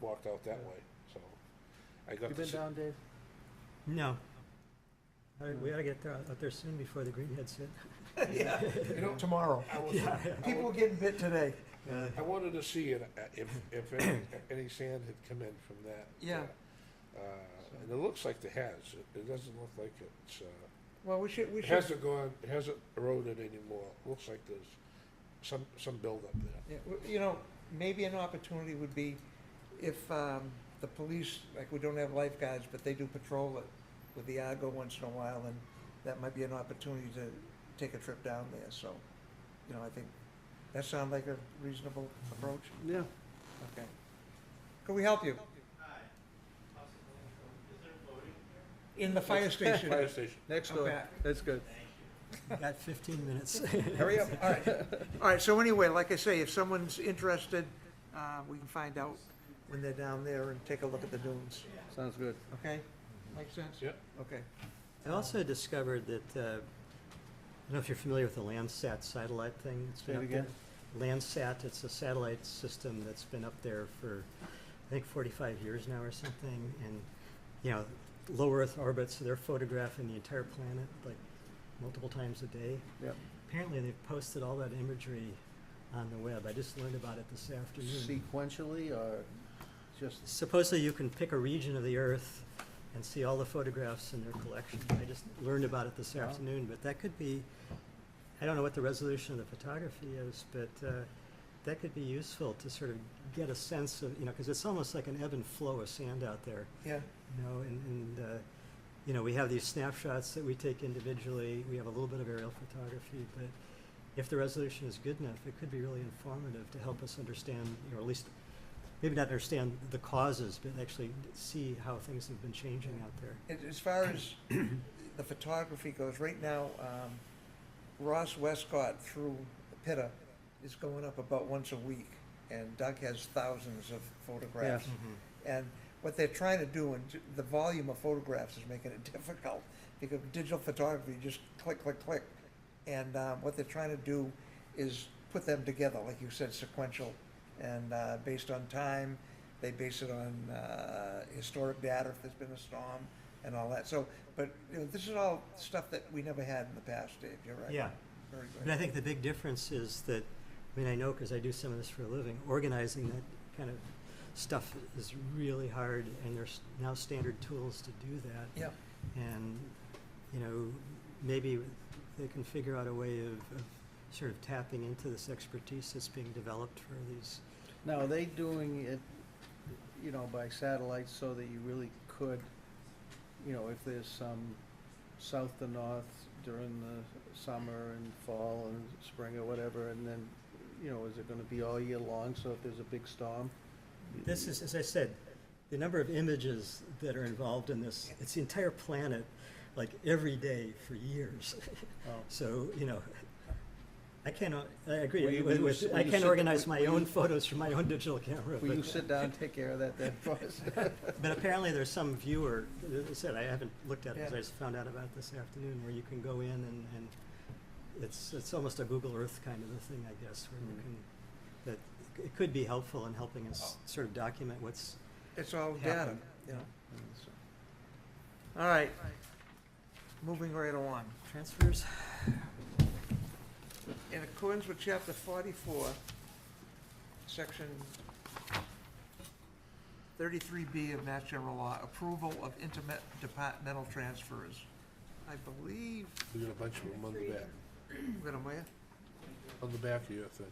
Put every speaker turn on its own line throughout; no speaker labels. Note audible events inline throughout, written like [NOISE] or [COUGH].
walked out that way, so. I got
You
to
been
see,
down, Dave?
No. I mean, we ought to get there- out there soon before the
[LAUGHS]
greenheads hit. [LAUGHS]
you know,
Tomorrow. [LAUGHS]
I was, I
People
wa-
getting bit today.
I wanted to see it, uh, if, if any, any sand had come in from that.
Yeah.
Uh, and it looks like it has, It- it doesn't look like it's, uh,
Well, we should, we
It
should,
hasn't gone, it hasn't eroded anymore. Looks like there's some, some buildup there.
yeah, w- you know, maybe an opportunity would be if um, the police, like, we don't have lifeguards, but they do patrol it with the Argo once in a while, and that might be an opportunity to take a trip down there, so, you know, I think, that sound like a reasonable approach?
Yeah.
Okay. Could we help you? In the fire station.
Fire station.
Next
I'm
door.
back.
That's good.
Got fifteen minutes.
Hurry [LAUGHS] up.
All right, all right, so anyway, like I say, if someone's interested, uh, we can find out when they're down there and take a look at the dunes,
Sounds good.
okay? Makes sense?
Yep.
Okay.
I also discovered that, uh, I don't know if you're familiar with the Landsat satellite thing. that's
Say
been
it
up there.
again.
Landsat, it's a satellite system that's been up there for, I think, forty-five years now or something, and, you know, low Earth orbit, so they're photographing the entire planet, like, multiple times a day.
Yep.
Apparently, they've posted all that imagery on the web. I just learned about it this afternoon.
Sequentially or just,
Supposedly, you can pick a region of the Earth and see all the photographs in their collection. I just learned about it this
Wow.
afternoon, but that could be, I don't know what the resolution of the photography is, but uh, that could be useful to sort of get a sense of, you know, because it's almost like an ebb and flow of sand out there,
Yeah,
you know, and, and uh, you know, we have these snapshots that we take individually. We have a little bit of aerial photography, but if the resolution is good enough, it could be really informative to help us understand, you know, at least maybe not understand the causes, but actually see how things have been changing out there.
as, as far as the photography goes, right now, um, Ross Westcott through Pitta is going up about once a week, and Doug has thousands of photographs. And what they're trying to do, and ju- the volume of photographs is making it [LAUGHS] difficult, because digital photography, you just click, click, click. And uh, what they're trying to do is put them together, like you said, sequential, and uh, based on time, they base it on uh, historic data, if there's been a storm, and all that. So, but, you know, this is all stuff that we never had in the past, Dave, you're right.
Yeah.
Very
But I
good.
think the big difference is that, I mean, I know because I do some of this for a living, organizing that kind of stuff is really hard, and there's now standard tools to do that.
Yeah,
And, you know, maybe they can figure out a way of, of sort of tapping into this expertise that's being developed for these.
now, are they doing it, you know, by satellite so that you really could, you know, if there's some south to north during the summer and fall and spring or whatever, and then, you know, is it gonna be all year long? So if there's a big storm?
This is, as I said, the number of images that are involved in this, it's the entire planet, like every day for years. [LAUGHS]
Oh.
So, you know, I cannot, I agree,
Will you-
with-
will you
with-
sit- will
I
you
can't
sit-
organize
will
my
you-
own photos from my own digital camera,
Will you
but,
sit down and take care of that then for us?
but
[LAUGHS]
apparently there's some viewer, as I said, I haven't looked at it, because I
Yeah.
just found out about this afternoon, where you can go in and, and it's, it's almost a Google Earth kind of a thing, I guess, where you
Mm. Oh.
can, that, it could be helpful in helping us sort of document what's
it's all data,
happened.
you know. All right, moving right along.
Transfers?
In accordance with chapter forty-four, section thirty-three B of Mass General Law, approval of interdepartmental transfers. I believe,
We got a bunch of them on the back,
wait a minute,
on the back of your thing.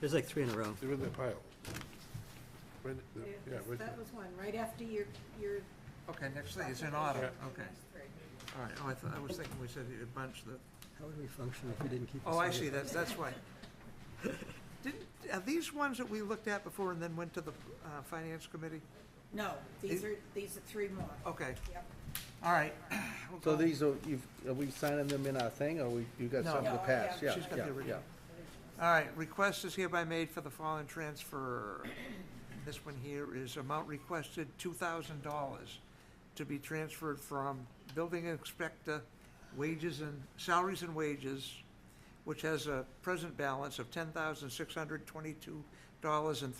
There's like three in a row.
They're in the pile. Right in the- Yeah, right there.
That was one, right after your, your.
okay, next thing, it's in order,
Yeah.
okay. All right, oh, I thought, I was thinking we said you had bunched the,
How would we function if we didn't keep?
oh, I
this
see,
order?
that's, that's why. [LAUGHS] Didn't, are these ones that we looked at before and then went to the, uh, finance committee?
No,
It-
these
Oh.
are, these are three more.
Okay,
Yep.
all right. We'll
So
go-
these are, you've, are we signing them in our thing, or we, you got
No.
some to
No, I
pass?
have.
Yeah,
She's got the
yeah, yeah.
original. All right, request is hereby made for the following transfer. This one here is amount requested, two thousand dollars, to be transferred from building inspector wages and, salaries and wages, which has a present balance of ten thousand six hundred twenty-two dollars and